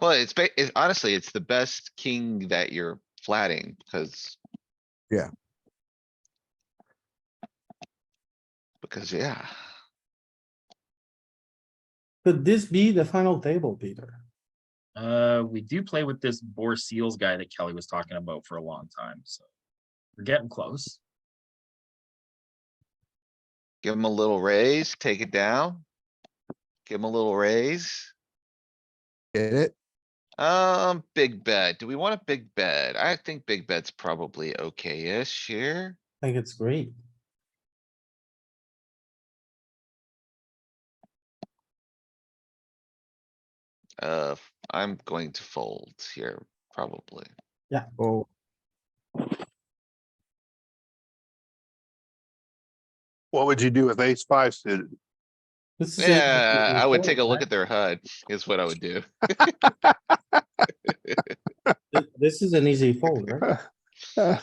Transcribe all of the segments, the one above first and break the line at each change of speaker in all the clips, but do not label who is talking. Well, it's ba- it- honestly, it's the best king that you're flatting, because.
Yeah.
Because, yeah,
Could this be the final table, Peter?
Uh, we do play with this Boar Seals guy that Kelly was talking about for a long time, so we're getting close.
give him a little raise, take it down. Give him a little raise.
Get it?
Um, big bet. Do we want a big bet? I think big bet's probably okay-ish here.
I think it's great.
Uh, f- I'm going to fold here, probably.
Oh,
What would you do with ace five suited?
This is it.
Yeah, I would take a look at their HUD is what I would do.
Th- This is an easy fold, right?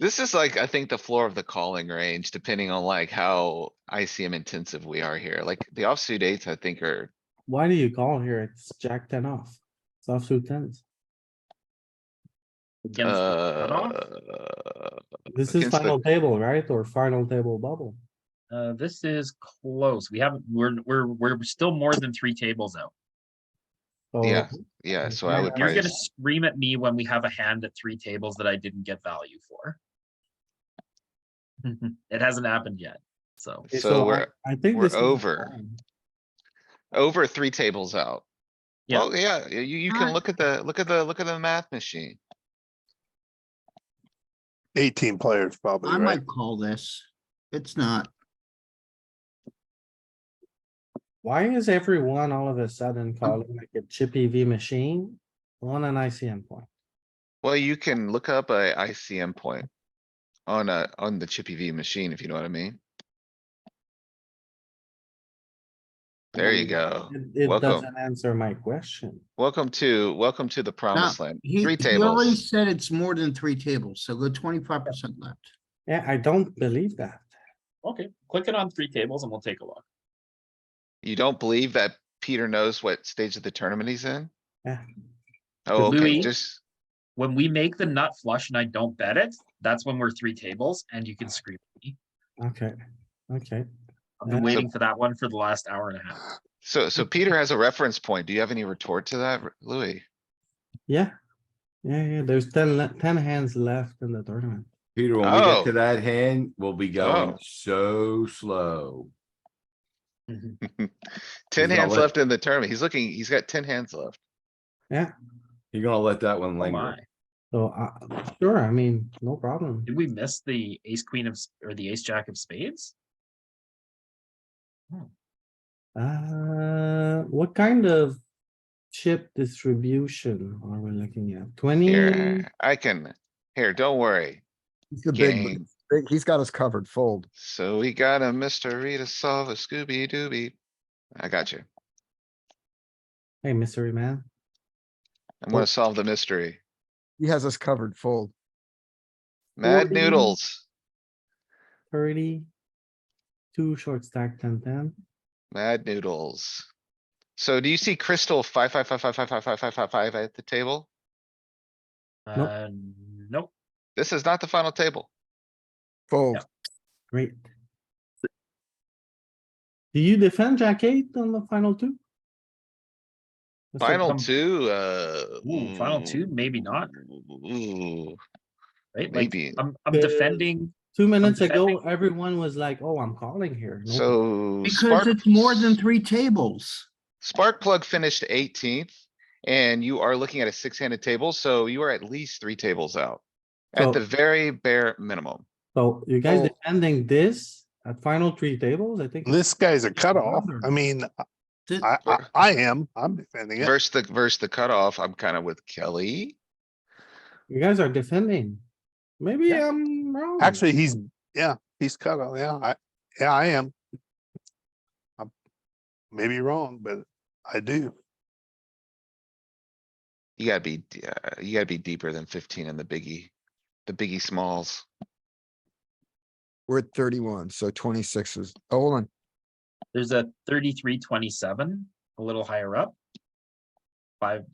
This is like, I think the floor of the calling range, depending on like how ICM intensive we are here. Like the offsuit eights, I think are,
Why do you call here? It's jack ten off. It's offsuit tens.
Against the cutoff.
uh,
This is
Against the-
final table, right? Or final table bubble.
Uh, this is close. We haven't, we're, we're, we're still more than three tables out.
So
Yeah, yeah, so I
Yeah,
would
You're
probably,
gonna scream at me when we have a hand at three tables that I didn't get value for. It hasn't happened yet, so.
okay,
so
I-
we're
I think
we're
this is
over.
fine.
over three tables out.
Yeah.
Well, yeah, you, you can
Alright.
look at the, look at the, look at the math machine.
Eighteen players probably,
I
right?
might call this. It's not.
Why is everyone all of a
Mm.
sudden calling like a chippy V machine on an ICM point?
Well, you can look up a ICM point on a, on the Chippy V machine, if you know what I mean. There you go.
It- It
Welcome.
doesn't answer my question.
Welcome to, welcome to the promised land.
He,
Three
he already
tables.
said it's more than three tables, so go twenty-five percent left.
Yeah, I don't believe that.
Okay, click it on three tables and we'll take a look.
You don't believe that Peter knows what stage of the tournament he's in?
Yeah.
Oh, okay,
Louis-
just,
When we make the nut flush and I don't bet it, that's when we're three tables and you can scream at me.
Okay, okay.
I've been
Yeah.
waiting for that one for the last hour and a half.
so, so Peter has a reference point. Do you have any retort to that, R- Louis?
Yeah. Yeah, yeah, there's ten, le- 10 hands left in the tournament.
Peter, when we get
Oh.
to that hand, we'll be
Oh.
going so slow.
Ten
Mm-hmm.
Oh
He's not
hands
let-
left in the tournament. He's looking, he's got ten hands left.
You're gonna let that one
Oh
linger.
my,
So, uh, sure, I mean, no problem.
did we miss the ace queen of, s- or the ace jack of spades?
Uh, what kind of chip distribution are we looking at? Twenty?
Here, I can, here, don't worry.
he's the big,
Gang.
big- he's got us covered, fold.
So we got a mystery to solve a Scooby Dooby. I got you.
Hey, mystery man.
I'm gonna
Well-
solve the mystery.
He has us covered, fold.
Mad
Forty.
noodles,
thirty. Two short stack ten ten.
mad noodles. So do you see Crystal five, five, five, five, five, five, five, five, five, five at the table?
Nope.
Uh, nope,
This is not the final table.
Fold.
Great. Do you defend jack eight on the final two? That's a
Final
come-
two, uh.
Ooh, final two, maybe not,
Ooh,
right? Like,
maybe.
I'm, I'm
Uh,
defending,
Two minutes
defending-
ago, everyone was like, oh, I'm calling here. No-
So.
Because
Spark-
it's more than three tables.
Spark plug finished eighteenth and you are looking at a six-handed table, so you are at least three tables out.
So-
At the very bare minimum.
So you guys
Oh.
defending this at final three tables, I think. it's-
This guy's a cutoff. I mean,
Th-
I, I, I am, I'm defending it.
Versus the, versus the cutoff, I'm kind of with Kelly.
You guys are defending. Maybe
Yeah.
I'm wrong.
Actually, he's, yeah, he's cutoff, yeah, I, yeah, I am. I'm Maybe wrong, but I do.
You gotta be, d- uh, you gotta be deeper than fifteen in the biggie, the biggie smalls.
We're at thirty-one, so twenty-six is, oh, hold on.
there's a thirty-three, twenty-seven, a little higher up. Five,